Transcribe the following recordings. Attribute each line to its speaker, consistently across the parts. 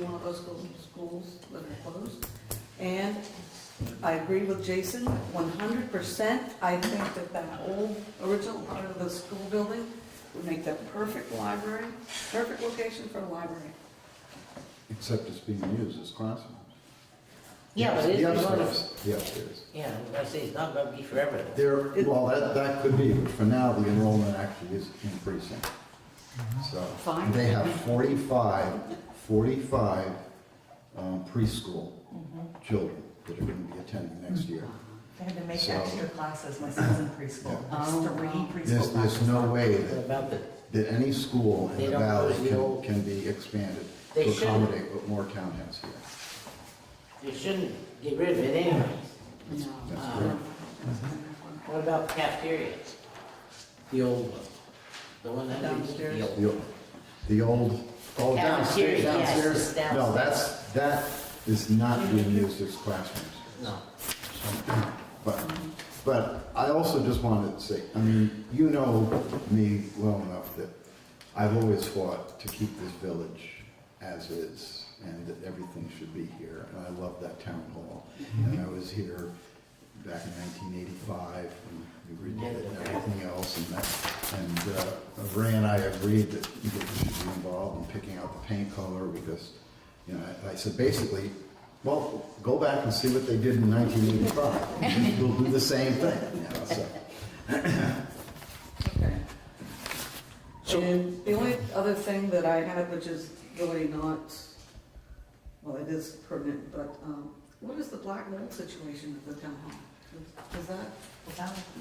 Speaker 1: one of those schools, schools that are closed. And I agree with Jason, one hundred percent. I think that that old original part of the school building would make that perfect library, perfect location for a library.
Speaker 2: Except it's being used as classrooms.
Speaker 3: Yeah, but it's
Speaker 2: The
Speaker 3: one
Speaker 2: upstairs, the upstairs.
Speaker 3: Yeah, I say it's not gonna be forever.
Speaker 2: There, well, that, that could be, but for now, the enrollment actually is increasing. So.
Speaker 1: Fine.
Speaker 2: They have 45, 45 um, preschool
Speaker 3: Mm-hmm.
Speaker 2: children that are going to be attending next year.
Speaker 4: I had to make
Speaker 2: So-
Speaker 4: extra classes, my son's in preschool, there's three
Speaker 2: There's, there's
Speaker 4: preschool classes.
Speaker 2: no way
Speaker 3: What
Speaker 2: that,
Speaker 3: About the,
Speaker 2: that any school
Speaker 3: They
Speaker 2: in the
Speaker 3: don't
Speaker 2: valley
Speaker 3: close the
Speaker 2: can,
Speaker 3: old-
Speaker 2: can be expanded
Speaker 3: They
Speaker 2: to
Speaker 3: should.
Speaker 2: accommodate what Moortown has here.
Speaker 3: you shouldn't get rid of it anyways.
Speaker 1: No.
Speaker 2: That's
Speaker 3: Uh,
Speaker 2: correct.
Speaker 3: What about cafeterias? The old one, the one that.
Speaker 1: Downstairs?
Speaker 3: the old-
Speaker 2: The, the old, oh, downstairs,
Speaker 3: Downstairs, yes,
Speaker 2: downstairs. No,
Speaker 3: downstairs.
Speaker 2: that's, that is not being used as classrooms.
Speaker 3: No,
Speaker 2: But, but I also just wanted to say, I mean, you know me well enough that I've always fought to keep this village as is and that everything should be here. And I love that town hall. And I was here back in 1985 and we redid it and everything else. And that, and uh, Ray and I agreed that you should be involved in picking out the paint color because, you know, I- I said basically, well, go back and see what they did in 1985. We'll do the same thing, you know, so.
Speaker 1: Okay. And the only other thing that I had, which is really not, well, it is pertinent, but um, what is the black mold situation at the town hall? Is- Is that?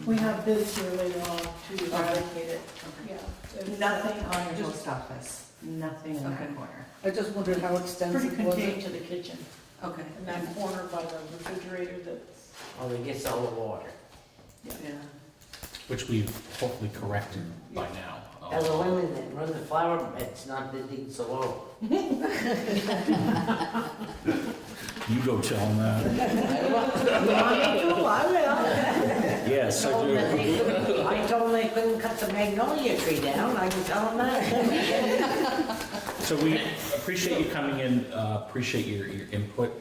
Speaker 5: We have bids here later on to eradicate it,
Speaker 1: Okay.
Speaker 5: yeah. It's-
Speaker 4: Nothing on your
Speaker 1: Just-
Speaker 4: post office, nothing in
Speaker 1: Okay.
Speaker 4: that corner.
Speaker 1: I just wondered how
Speaker 5: Pretty
Speaker 1: extensive was
Speaker 5: contained
Speaker 1: it?
Speaker 5: to the kitchen,
Speaker 1: Okay.
Speaker 5: in that corner by the refrigerator that's,
Speaker 3: well, Oh, it gets all the water.
Speaker 1: Yeah.
Speaker 6: which we've hopefully corrected by now.
Speaker 3: And the women that run the flower beds, not digging so low.
Speaker 6: You go tell them that.
Speaker 3: I will.
Speaker 6: Yes, I do.
Speaker 3: I told them they couldn't cut the magnolia tree down, I can tell them that.
Speaker 6: So we appreciate you coming in, uh, appreciate your, your input,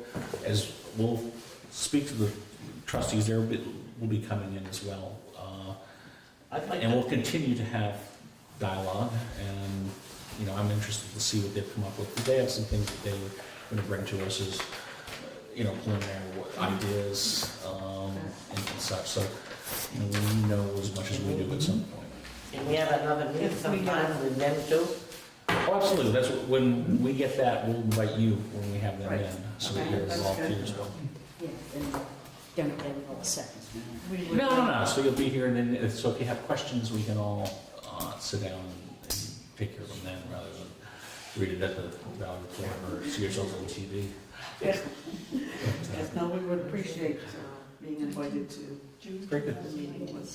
Speaker 6: as we'll speak to the trustees, there will will be coming in as well. Uh,
Speaker 3: I'd like
Speaker 6: And we'll
Speaker 3: to-
Speaker 6: continue to have dialogue, and, you know, I'm interested to see what they've come up with. They have some things that they were gonna bring to us as, you know, preliminary wa- ideas, um, and and such, so, you know, we know as much as we do at some point.
Speaker 3: Can we have another meeting
Speaker 4: Yes, we do.
Speaker 3: sometime with them too?
Speaker 6: Oh, Absolutely, that's, what- when we get that, we'll invite you when we have them
Speaker 1: Right.
Speaker 6: in, so that
Speaker 1: Okay,
Speaker 6: you're
Speaker 1: that's
Speaker 6: involved
Speaker 1: good.
Speaker 6: here as well.
Speaker 7: Yeah, and don't get involved seconds.
Speaker 4: We would-
Speaker 6: No, no, no, so you'll be here, and then, if- so if you have questions, we can all uh, sit down and take care of them then, rather than read it at the Valley Forum or see yourselves on TV.
Speaker 1: Yes, no, we would appreciate uh, being invited to
Speaker 6: Very good.
Speaker 1: the meeting with.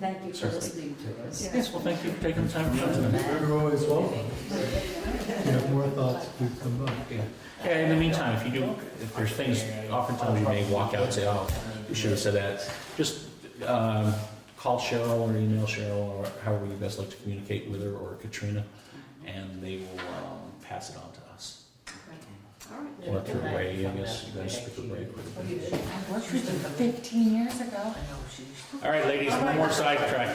Speaker 7: Thank you for
Speaker 6: Certainly.
Speaker 7: listening to us.
Speaker 6: Yes, well, thank you for taking the time to come tonight.
Speaker 8: You're always welcome. If you have more thoughts, please come by.
Speaker 6: Yeah, Yeah, in the meantime, if you do, if there's things, oftentimes you may walk out and say, oh, you should have said that. Just um, call Cheryl or email Cheryl, or however you best like to communicate with her, or Katrina, and they will um, pass it on to us.
Speaker 1: All right.
Speaker 6: Or through Ray, I guess, you guys speak with Ray.
Speaker 3: Oh,
Speaker 6: quickly.
Speaker 4: I worked with them fifteen years ago, and oh, she's
Speaker 6: All right, ladies, one more sidetrack.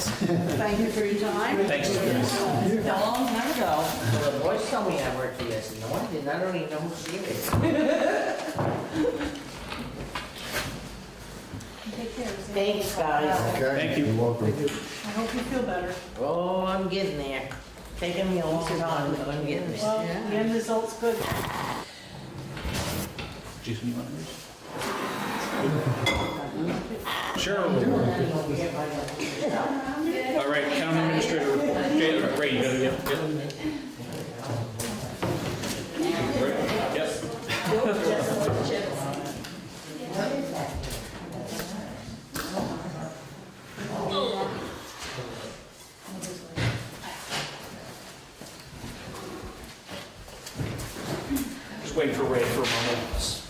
Speaker 1: Thank you for your time.
Speaker 6: Thanks. Denise.
Speaker 4: a long time ago.
Speaker 3: Well, the boys told me I worked for this, and the one didn't, I don't even know who she is.
Speaker 5: take care. Zane.
Speaker 3: Thanks, guys.
Speaker 2: Okay?
Speaker 6: Thank you.
Speaker 2: You're welcome.
Speaker 5: I hope you feel better.
Speaker 3: Oh, I'm getting there. Taking me a long time, but I'm getting there.
Speaker 5: Well, the end result's good.
Speaker 6: Jason, you want to? Cheryl. All right, county administrator report. Jay- Ray, you gotta get, get Right, Yep. Just wait for Ray for a moment.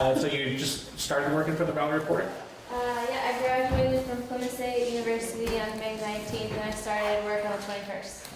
Speaker 6: Uh, so you just started working for the Valley Report?
Speaker 9: Uh, yeah, I graduated from Plymouth State University on May 19th, and I started work on the 21st.